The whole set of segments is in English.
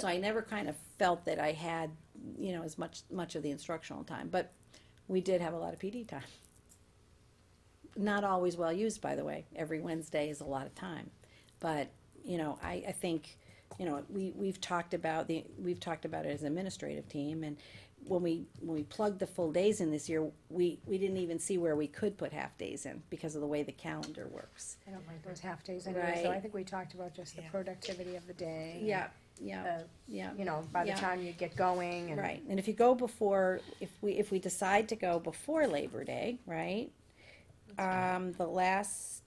So I never kind of felt that I had, you know, as much, much of the instructional time, but we did have a lot of PD time. Not always well used, by the way. Every Wednesday is a lot of time. But, you know, I, I think, you know, we, we've talked about the, we've talked about it as an administrative team and when we, when we plugged the full days in this year, we, we didn't even see where we could put half days in because of the way the calendar works. I don't like those half-days anyway, so I Right. think we talked about just the Yeah. productivity of the day. and, Yeah, yeah, uh, yeah. You know, by the Yeah. time you get going and. Right, and if you go before, if we, if we decide to go before Labor Day, right? Um, the last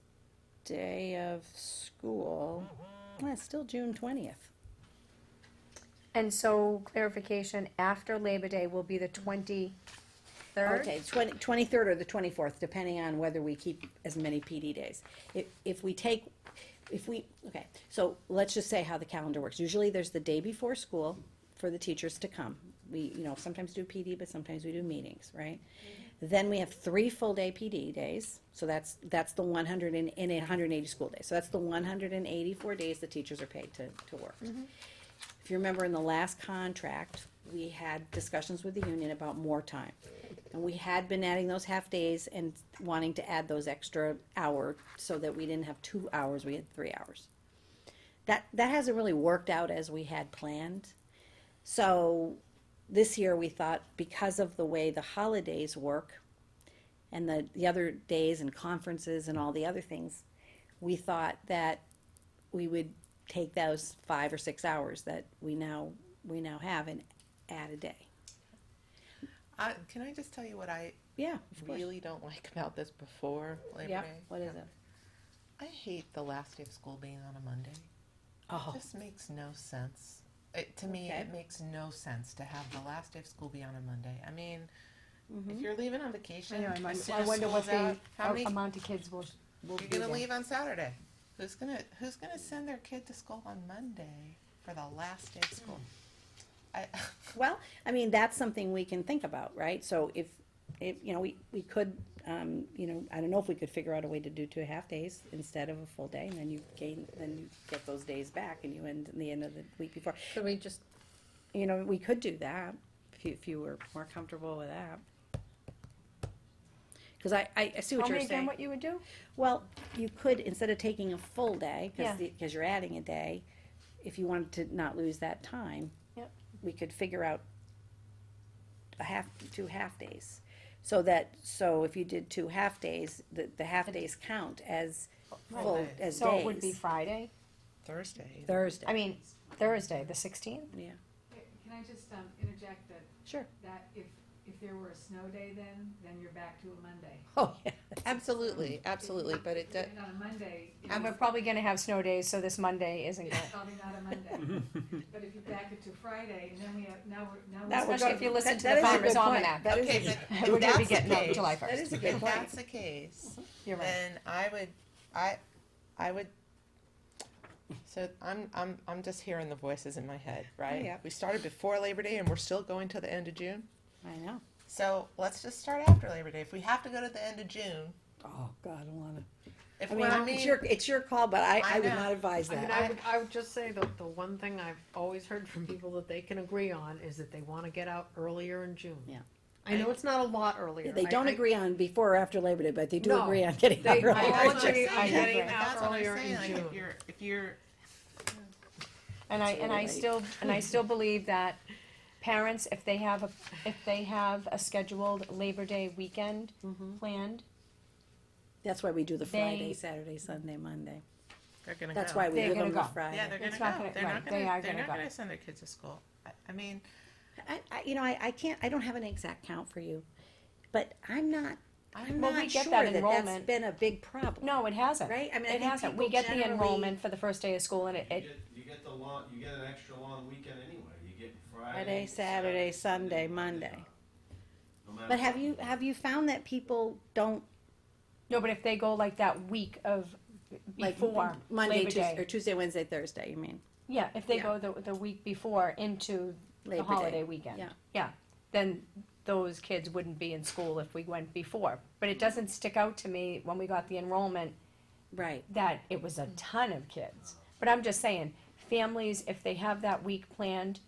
day of school, well, it's still June twentieth. And so clarification, after Labor Day will be the twenty-third? Okay, twenty, twenty-third or the twenty-fourth, depending on whether we keep as many PD days. If, if we take, if we, okay, so let's just say how the calendar works. Usually there's the day before school for the teachers to come. We, you know, sometimes do PD, but sometimes we do meetings, right? Then we have three full-day PD days, so that's, that's the one hundred and, and hundred and eighty school days. So that's the one hundred and eighty-four days the teachers are paid to, to work. If you remember in the last contract, we had discussions with the union about more time. And we had been adding those half days and wanting to add those extra hour so that we didn't have two hours, we had three hours. That, that hasn't really worked out as we had planned. So this year we thought because of the way the holidays work and the, the other days and conferences and all the other things, we thought that we would take those five or six hours that we now, we now have and add a day. I, can I just tell you what I Yeah, of course. really don't like about this before Labor Yeah, Day? what is it? I hate the last day of school being on a Monday. Oh, This makes no sense. It, to me, Okay. it makes no sense to have the last day of school be on a Monday. I mean, if you're leaving Mm-hmm. on I vacation, know, I'm- as soon I as wonder what school's the out, how a- many amount of kids will, will be you're gonna there. leave on Saturday? Who's gonna Who's gonna send their kid to school on Monday for the last day of school? I, well, I mean, that's something we can think about, right? So if, if, you know, we, we could, um, you know, I don't know if we could figure out a way to do two half days instead of a full day, and then you gain, then you get those days back and you end in the end of the week before. Could we just, You know, we could do that, if you, if you were more comfortable with that. Cause I, I, I see what Tell you're me saying. again what you would do? Well, you could, instead of taking a full day, Yeah. because, because you're adding a day, if you wanted to not lose that time. Yep. We could figure out a half, two half-days, so that, so if you did two half-days, the, the half-days count as full, Right. as So it would be days. Friday, Thursday. Thursday. I mean, Thursday, the sixteenth? Yeah, Can I just um, interject that, sure. that if, if there were a snow day then, then you're back to a Monday. Oh, yeah. Absolutely, absolutely, but it does. And on a Monday, it And we're was probably gonna have snow days, so this Monday isn't good. probably not a Monday. But if you back it to Friday, and then we have, now we're, now we're. That would Especially go- if you listen that- to that the is a Farmer's good point. Almanac. That is, Okay, a- but if We're gonna be that's the getting up case- July first. that is a good If point. that's the case, You're right. then I would, I, I would. So I'm, I'm, I'm just hearing the voices in my head, Oh, right? yeah. We started before Labor Day and we're still going till the end of June. I know. So let's just start after Labor Day. If we have to go to the end of June, Oh, God, I don't wanna. if I we're, I mean, it's your, mean, it's your call, but I, I I would know. not advise I mean, that. I would, I would just say that the one thing I've always heard from people that they can agree on is that they wanna get out earlier in June. Yeah. I know it's not a lot earlier. They I- don't I- agree on before or after Labor Day, but they do No. agree on getting They- out early. I that's what I'm agree, I saying, agree. That's what I'm Earlier in saying, like, if June. you're, if you're, And I, and I Absolutely. still, and I still believe that parents, if they have a, if they have a scheduled Labor Day weekend Mm-hmm. planned, That's why we do the Friday, They- Saturday, Sunday, Monday. they're gonna go. That's why we They're give gonna them the go. Yeah, they're Friday. gonna It's not go. gonna- They're not right, gonna, they are they're gonna not go. gonna send their kids to school. I, I mean, I, I, you know, I, I can't, I don't have an exact count for you, but I'm not, I'm Well, we not get sure that that that's enrollment. been a big problem. no, it hasn't. Right? I mean, I It think hasn't. We people get the generally- enrollment for the first day of school and it, You it, get, you get the long, you get an extra long weekend anyway, you get Friday, Friday. Saturday, Sunday, Monday. No matter But have what. you, have you found that people don't, no, but if they go like that week of, like, before Monday, Labor Tuesday, or Day. Tuesday, Wednesday, Thursday, you mean? Yeah, if they Yeah. go the, the week before into the Labor holiday Day. weekend. Yeah. Yeah, then those kids wouldn't be in school if we went before. But it doesn't stick out to me when we got the enrollment Right. that it was a ton of kids. But I'm just saying, families, if they have that week planned,